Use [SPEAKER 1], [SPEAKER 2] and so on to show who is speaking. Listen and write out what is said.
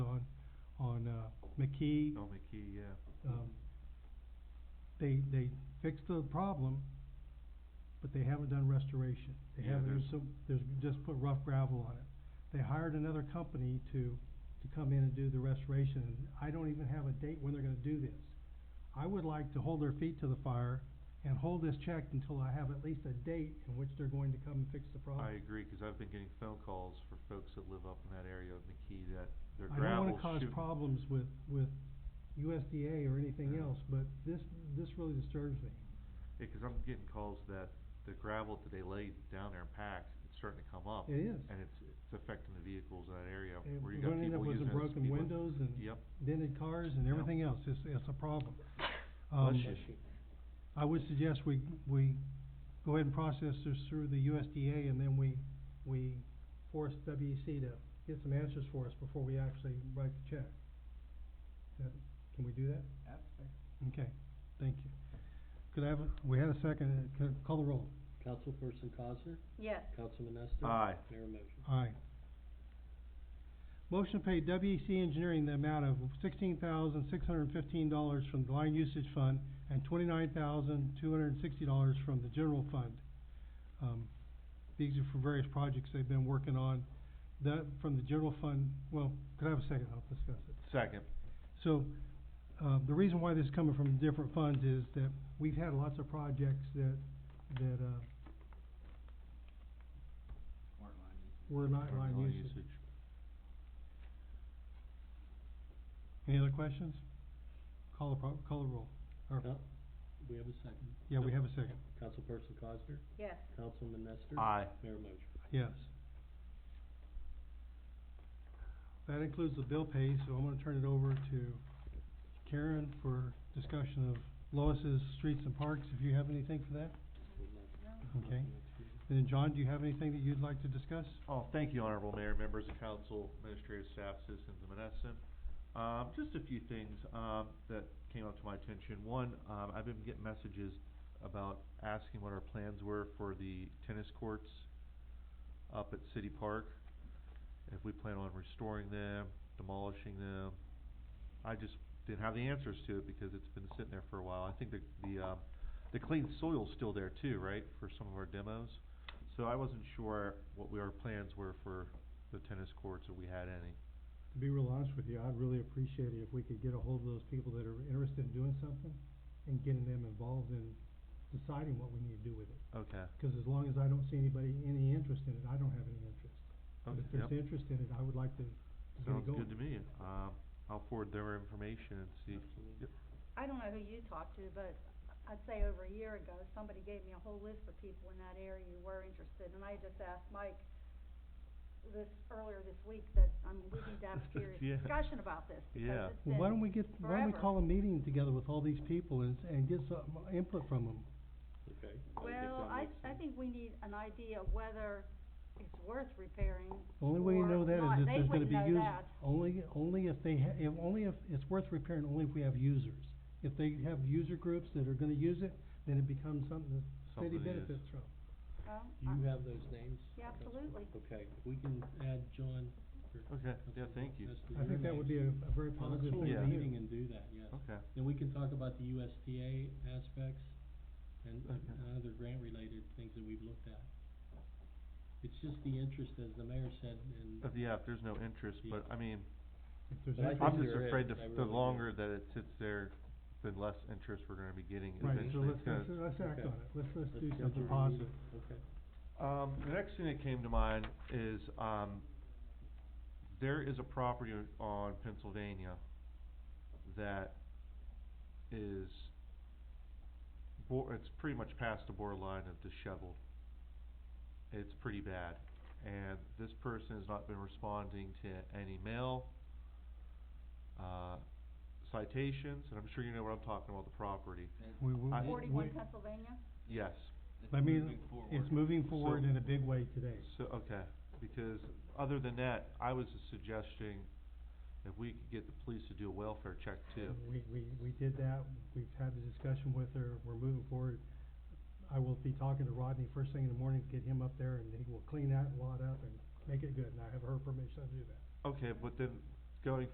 [SPEAKER 1] uh, McKee,
[SPEAKER 2] Bill McKee, yeah.
[SPEAKER 1] um, they, they fixed the problem, but they haven't done restoration. They
[SPEAKER 2] Yeah,
[SPEAKER 1] haven't,
[SPEAKER 2] there's-
[SPEAKER 1] there's some, there's just put rough gravel on it. They hired another company to, to come in and do the restoration, and I don't even have a date when they're gonna do this. I would like to hold their feet to the fire and hold this check until I have at least a date in which they're going to come and fix the problem.
[SPEAKER 2] I agree, cause I've been getting phone calls for folks that live up in that area of McKee that their
[SPEAKER 1] I don't
[SPEAKER 2] gravel's
[SPEAKER 1] wanna cause
[SPEAKER 2] shooting.
[SPEAKER 1] problems with, with USDA or anything
[SPEAKER 2] Yeah.
[SPEAKER 1] else, but this, this really disturbs me.
[SPEAKER 2] Yeah, cause I'm getting calls that the gravel that they laid down there in packs, it's starting to come up.
[SPEAKER 1] It is.
[SPEAKER 2] And it's, it's affecting the vehicles in that area
[SPEAKER 1] And
[SPEAKER 2] where you
[SPEAKER 1] we're
[SPEAKER 2] got
[SPEAKER 1] gonna end up with
[SPEAKER 2] people
[SPEAKER 1] some
[SPEAKER 2] using it as
[SPEAKER 1] broken
[SPEAKER 2] speed lim-
[SPEAKER 1] windows and
[SPEAKER 2] Yep,
[SPEAKER 1] dented cars and
[SPEAKER 2] Yeah.
[SPEAKER 1] everything else, it's, it's a problem. Um,
[SPEAKER 2] bless you.
[SPEAKER 1] I would suggest we, we go ahead and process this through the USDA and then we, we force WEC to get some answers for us before we actually write the check. That- Can we do that?
[SPEAKER 3] Absolutely.
[SPEAKER 1] Okay, thank you. Could I have, a- we had a second, uh, c- call the roll.
[SPEAKER 4] Councilperson Cosner,
[SPEAKER 5] Yes,
[SPEAKER 4] Councilman Nestor.
[SPEAKER 2] Aye.
[SPEAKER 4] Mayor motion.
[SPEAKER 1] Aye. Motion to pay WEC Engineering the amount of sixteen thousand, six hundred and fifteen dollars from the Line Usage Fund and twenty-nine thousand, two hundred and sixty dollars from the General Fund. Um, these are for various projects they've been working on. That, from the General Fund, well, could I have a second? I'll discuss it.
[SPEAKER 2] Second,
[SPEAKER 1] So, uh, the reason why this is coming from different funds is that we've had lots of projects that, that, uh,
[SPEAKER 3] Smart line usage.
[SPEAKER 1] were not
[SPEAKER 2] Urban
[SPEAKER 1] line
[SPEAKER 2] line
[SPEAKER 1] usage. Any other questions? Call the pro- call the roll. Or,
[SPEAKER 4] Coun- We have a second.
[SPEAKER 1] yeah, we have a second.
[SPEAKER 4] Councilperson Cosner,
[SPEAKER 5] yes,
[SPEAKER 4] Councilman Nestor.
[SPEAKER 2] aye,
[SPEAKER 4] Mayor motion.
[SPEAKER 1] Yes. That includes the bill pay, so I'm gonna turn it over to Karen for discussion of Lois's Streets and Parks, if you have anything for that. Okay. Then, John, do you have anything that you'd like to discuss?
[SPEAKER 2] Oh, thank you, Honorable Mayor, members of council, administrative staff, citizens of Menneson. Um, just a few things, um, that came up to my attention. One, um, I've been getting messages about asking what our plans were for the tennis courts up at City Park. If we plan on restoring them, demolishing them. I just didn't have the answers to it because it's been sitting there for a while. I think the, the, um, the clean soil's still there too, right, for some of our demos? So I wasn't sure what we- our plans were for the tennis courts, if we had any.
[SPEAKER 1] To be real honest with you, I'd really appreciate it if we could get a hold of those people that are interested in doing something and getting them involved in deciding what we need to do with it.
[SPEAKER 2] Okay,
[SPEAKER 1] Cause as long as I don't see anybody, any interest in it, I don't have any interest. But
[SPEAKER 2] okay,
[SPEAKER 1] if
[SPEAKER 2] yep.
[SPEAKER 1] there's interest in it, I would like to to get it
[SPEAKER 2] Sounds
[SPEAKER 1] going.
[SPEAKER 2] good to me. Um, I'll forward their information and see.
[SPEAKER 4] Absolutely.
[SPEAKER 5] I don't know who you talked to, but I'd say over a year ago, somebody gave me a whole list of people in that area who were interested, and I just asked Mike this, earlier this week, that I'm leaving to have a serious
[SPEAKER 2] Yeah.
[SPEAKER 5] discussion about this,
[SPEAKER 2] Yeah.
[SPEAKER 5] because it's
[SPEAKER 1] Well, why
[SPEAKER 5] been,
[SPEAKER 1] don't we get, why don't we
[SPEAKER 5] forever.
[SPEAKER 1] call a meeting together with all these people and, s- and get some input from them?
[SPEAKER 4] Okay.
[SPEAKER 5] well, I, I think we need an idea of whether it's worth repairing.
[SPEAKER 1] The only way you
[SPEAKER 5] Or
[SPEAKER 1] know that
[SPEAKER 5] not.
[SPEAKER 1] is if
[SPEAKER 5] They
[SPEAKER 1] there's gonna
[SPEAKER 5] wouldn't
[SPEAKER 1] be
[SPEAKER 5] know
[SPEAKER 1] use,
[SPEAKER 5] that.
[SPEAKER 1] only, only if they ha- if, only if, it's worth repairing only if we have users. If they have user groups that are gonna use it, then it becomes something the city
[SPEAKER 2] Something is-
[SPEAKER 1] benefits from.
[SPEAKER 5] Well, uh, I-
[SPEAKER 4] You have those names?
[SPEAKER 5] Yeah, absolutely.
[SPEAKER 4] Okay, if we can add John. or
[SPEAKER 2] Okay, yeah,
[SPEAKER 4] Councilman
[SPEAKER 2] thank you.
[SPEAKER 4] Nestor,
[SPEAKER 1] I
[SPEAKER 4] your
[SPEAKER 1] think that would
[SPEAKER 4] names.
[SPEAKER 1] be a, a very
[SPEAKER 4] Well, let's
[SPEAKER 1] positive
[SPEAKER 4] hold
[SPEAKER 1] thing
[SPEAKER 2] Yeah.
[SPEAKER 4] a
[SPEAKER 1] to
[SPEAKER 4] meeting
[SPEAKER 1] do.
[SPEAKER 4] and do that, yes.
[SPEAKER 2] Okay,
[SPEAKER 4] Then we can talk about the USDA aspects and
[SPEAKER 2] Okay.
[SPEAKER 4] and other grant-related things that we've looked at. It's just the interest, as the mayor said, and
[SPEAKER 2] But yeah, if there's no interest, but I mean,
[SPEAKER 1] If there's
[SPEAKER 4] But I
[SPEAKER 1] interest-
[SPEAKER 2] I'm
[SPEAKER 4] think
[SPEAKER 2] just
[SPEAKER 4] there
[SPEAKER 2] afraid the,
[SPEAKER 4] is, I
[SPEAKER 2] the
[SPEAKER 4] really do.
[SPEAKER 2] longer that it sits there, the less interest we're gonna be getting
[SPEAKER 1] Right, so
[SPEAKER 2] eventually.
[SPEAKER 1] let's,
[SPEAKER 2] It's
[SPEAKER 1] let's,
[SPEAKER 2] gonna-
[SPEAKER 1] let's act
[SPEAKER 4] Okay.
[SPEAKER 1] on it, let's, let's
[SPEAKER 4] Let's
[SPEAKER 1] do
[SPEAKER 4] get
[SPEAKER 1] something
[SPEAKER 4] your
[SPEAKER 1] positive.
[SPEAKER 4] Okay.
[SPEAKER 2] Um, the next thing that came to mind is, um, there is a property on Pennsylvania that is bor- it's pretty much past the borderline of disheveled. It's pretty bad, and this person has not been responding to any mail, uh, citations, and I'm sure you know what I'm talking about, the property.
[SPEAKER 1] We, we,
[SPEAKER 2] I-
[SPEAKER 1] we,
[SPEAKER 5] forty-one Pennsylvania,
[SPEAKER 2] Yes,
[SPEAKER 3] It's
[SPEAKER 1] I mean,
[SPEAKER 3] moving forward.
[SPEAKER 1] it's moving forward
[SPEAKER 2] So-
[SPEAKER 1] in a big way today.
[SPEAKER 2] So, okay, because other than that, I was just suggesting if we could get the police to do a welfare check too.
[SPEAKER 1] We, we, we did that, we've had the discussion with her, we're moving forward. I will be talking to Rodney first thing in the morning, get him up there, and he will clean that lot up and make it good, and I have her permission to do that.
[SPEAKER 2] Okay, but then going